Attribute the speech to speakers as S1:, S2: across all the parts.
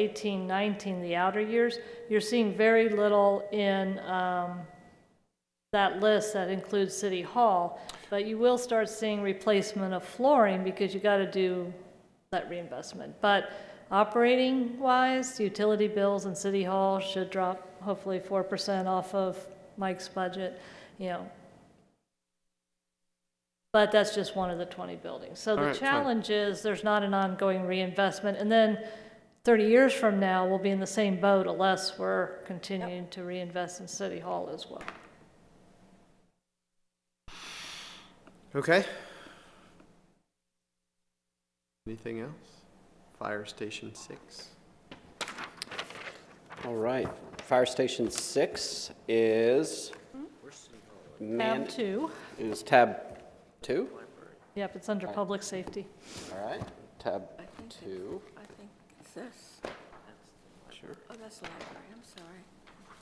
S1: 18, 19, the outer years, you're seeing very little in um, that list that includes City Hall, but you will start seeing replacement of flooring because you got to do that reinvestment. But operating-wise, utility bills and City Hall should drop hopefully 4% off of Mike's budget, you know, but that's just one of the 20 buildings. So
S2: All
S1: the
S2: right, fine.
S1: challenge is, there's not an ongoing reinvestment, and then 30 years from now, we'll be in the same boat unless we're continuing to reinvest in City Hall as well.
S2: Okay. Anything else? Fire Station Six.
S3: All right, Fire Station 6 is, man
S1: Tab two,
S3: is tab 2?
S1: yep, it's under public safety.
S3: All right, tab
S4: I think it's-
S3: 2.
S4: I think it's this.
S3: Sure.
S4: Oh, that's the library, I'm sorry.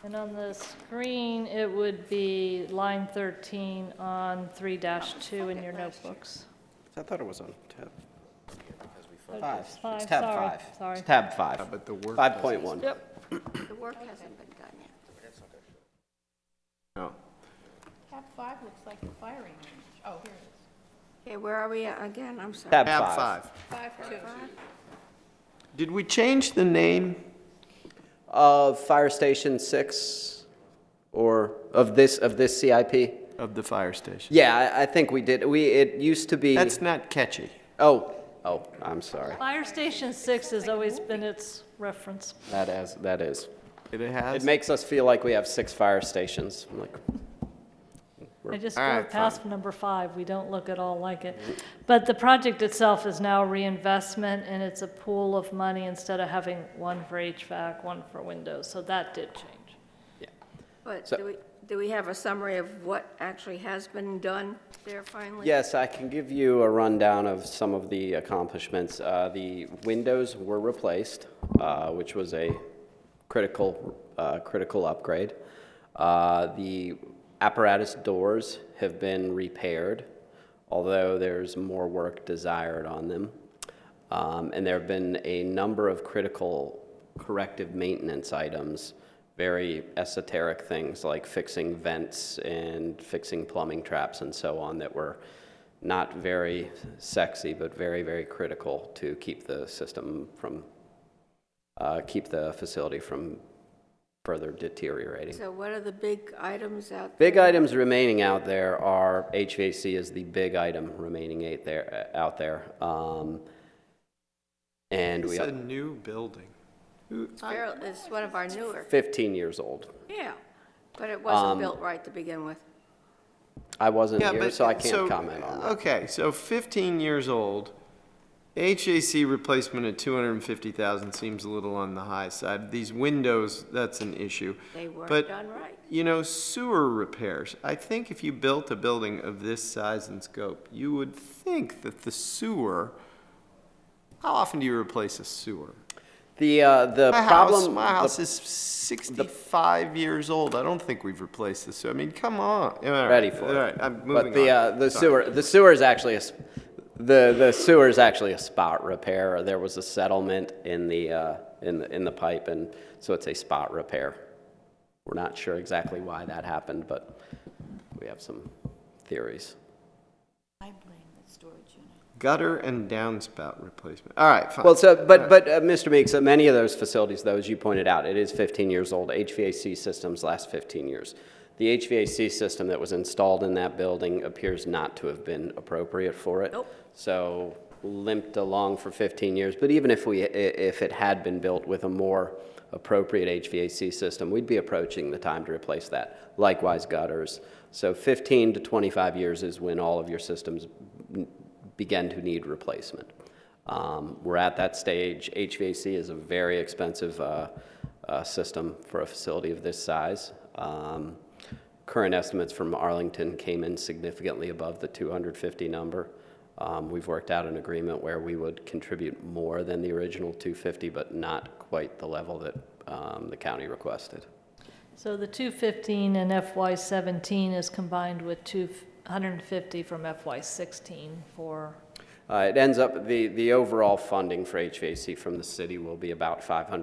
S1: And on the screen, it would be line 13 on 3-2 in your notebooks.
S3: I thought it was on tab
S1: Oh,
S3: 5.
S1: it's five,
S3: It's tab
S1: sorry,
S3: 5.
S1: Sorry.
S3: It's tab 5.
S2: but the work
S3: 5.1.
S1: Yep.
S4: The work hasn't been done yet.
S2: No.
S5: Tab five looks like the firing range. Oh, here it is.
S4: Okay, where are we at again? I'm sorry.
S3: Tab
S2: Tab
S3: 5.
S2: five.
S5: Five two.
S2: Did we change the name?
S3: Of Fire Station 6, or of this, of this CIP?
S2: Of the fire station.
S3: Yeah, I- I think we did. We, it used to be,
S2: That's not catchy.
S3: oh, oh, I'm sorry.
S1: Fire Station 6 has always been its reference.
S3: That is, that is.
S2: It has.
S3: It makes us feel like we have six fire stations. I'm like,
S1: I just
S2: All
S1: go
S2: right,
S1: past number five, we don't look at all like it. But the project itself is now reinvestment, and it's a pool of money instead of having one for HVAC, one for windows, so that did change.
S4: But
S3: So-
S4: do we, do we have a summary of what actually has been done there finally?
S3: Yes, I can give you a rundown of some of the accomplishments. Uh, The windows were replaced, uh, which was a critical, uh, critical upgrade. Uh, The apparatus doors have been repaired, although there's more work desired on them. Um, And there have been a number of critical corrective maintenance items, very esoteric things like fixing vents and fixing plumbing traps and so on that were not very sexy, but very, very critical to keep the system from, uh, keep the facility from further deteriorating.
S4: So what are the big items out?
S3: Big items remaining out there are, HVAC is the big item remaining eight there, uh, out there. Um, And
S2: It's
S3: we,
S2: a new building.
S4: It's fair- It's one of our newer,
S3: 15 years old.
S4: yeah, but it
S3: Um,
S4: wasn't built right to begin with.
S3: I wasn't
S2: Yeah,
S3: here,
S2: but-
S3: so I can't comment on that.
S2: Okay, so 15 years old, HAC replacement at 250,000 seems a little on the high side. These windows, that's an issue.
S4: They weren't
S2: But,
S4: done right.
S2: You know, sewer repairs. I think if you built a building of this size and scope, you would think that the sewer. How often do you replace a sewer?
S3: The, uh, the
S2: My house,
S3: problem.
S2: my
S3: the-
S2: house is 65 years old. I don't think we've replaced the sewer. I mean, come on. All right,
S3: Ready for it.
S2: All right, I'm moving
S3: But the,
S2: on.
S3: uh, the
S2: Sorry.
S3: sewer, the sewer is actually a, s- the, the sewer is actually a spot repair. There was a settlement in the, uh, in, the- in the pipe, and so it's a spot repair. We're not sure exactly why that happened, but we have some theories.
S5: I blame the storage unit.
S2: Gutter and downspout replacement. All right, fine.
S3: Well, so, but, but, uh, Mr. Meeks, uh, many of those facilities, though, as you pointed out, it is 15 years old. HVAC systems last 15 years. The HVAC system that was installed in that building appears not to have been appropriate for it.
S4: Nope.
S3: So limped along for 15 years. But even if we, i- if it had been built with a more appropriate HVAC system, we'd be approaching the time to replace that. Likewise gutters. So 15 to 25 years is when all of your systems n- begin to need replacement. Um, We're at that stage. HVAC is a very expensive uh, uh, system for a facility of this size. Um, Current estimates from Arlington came in significantly above the 250 number. Um, We've worked out an agreement where we would contribute more than the original 250, but not quite the level that um, the county requested.
S1: So the 215 in FY17 is combined with 250 from FY16 for,
S3: Uh, It ends up, the, the overall funding for HVAC from the city will be about $500,000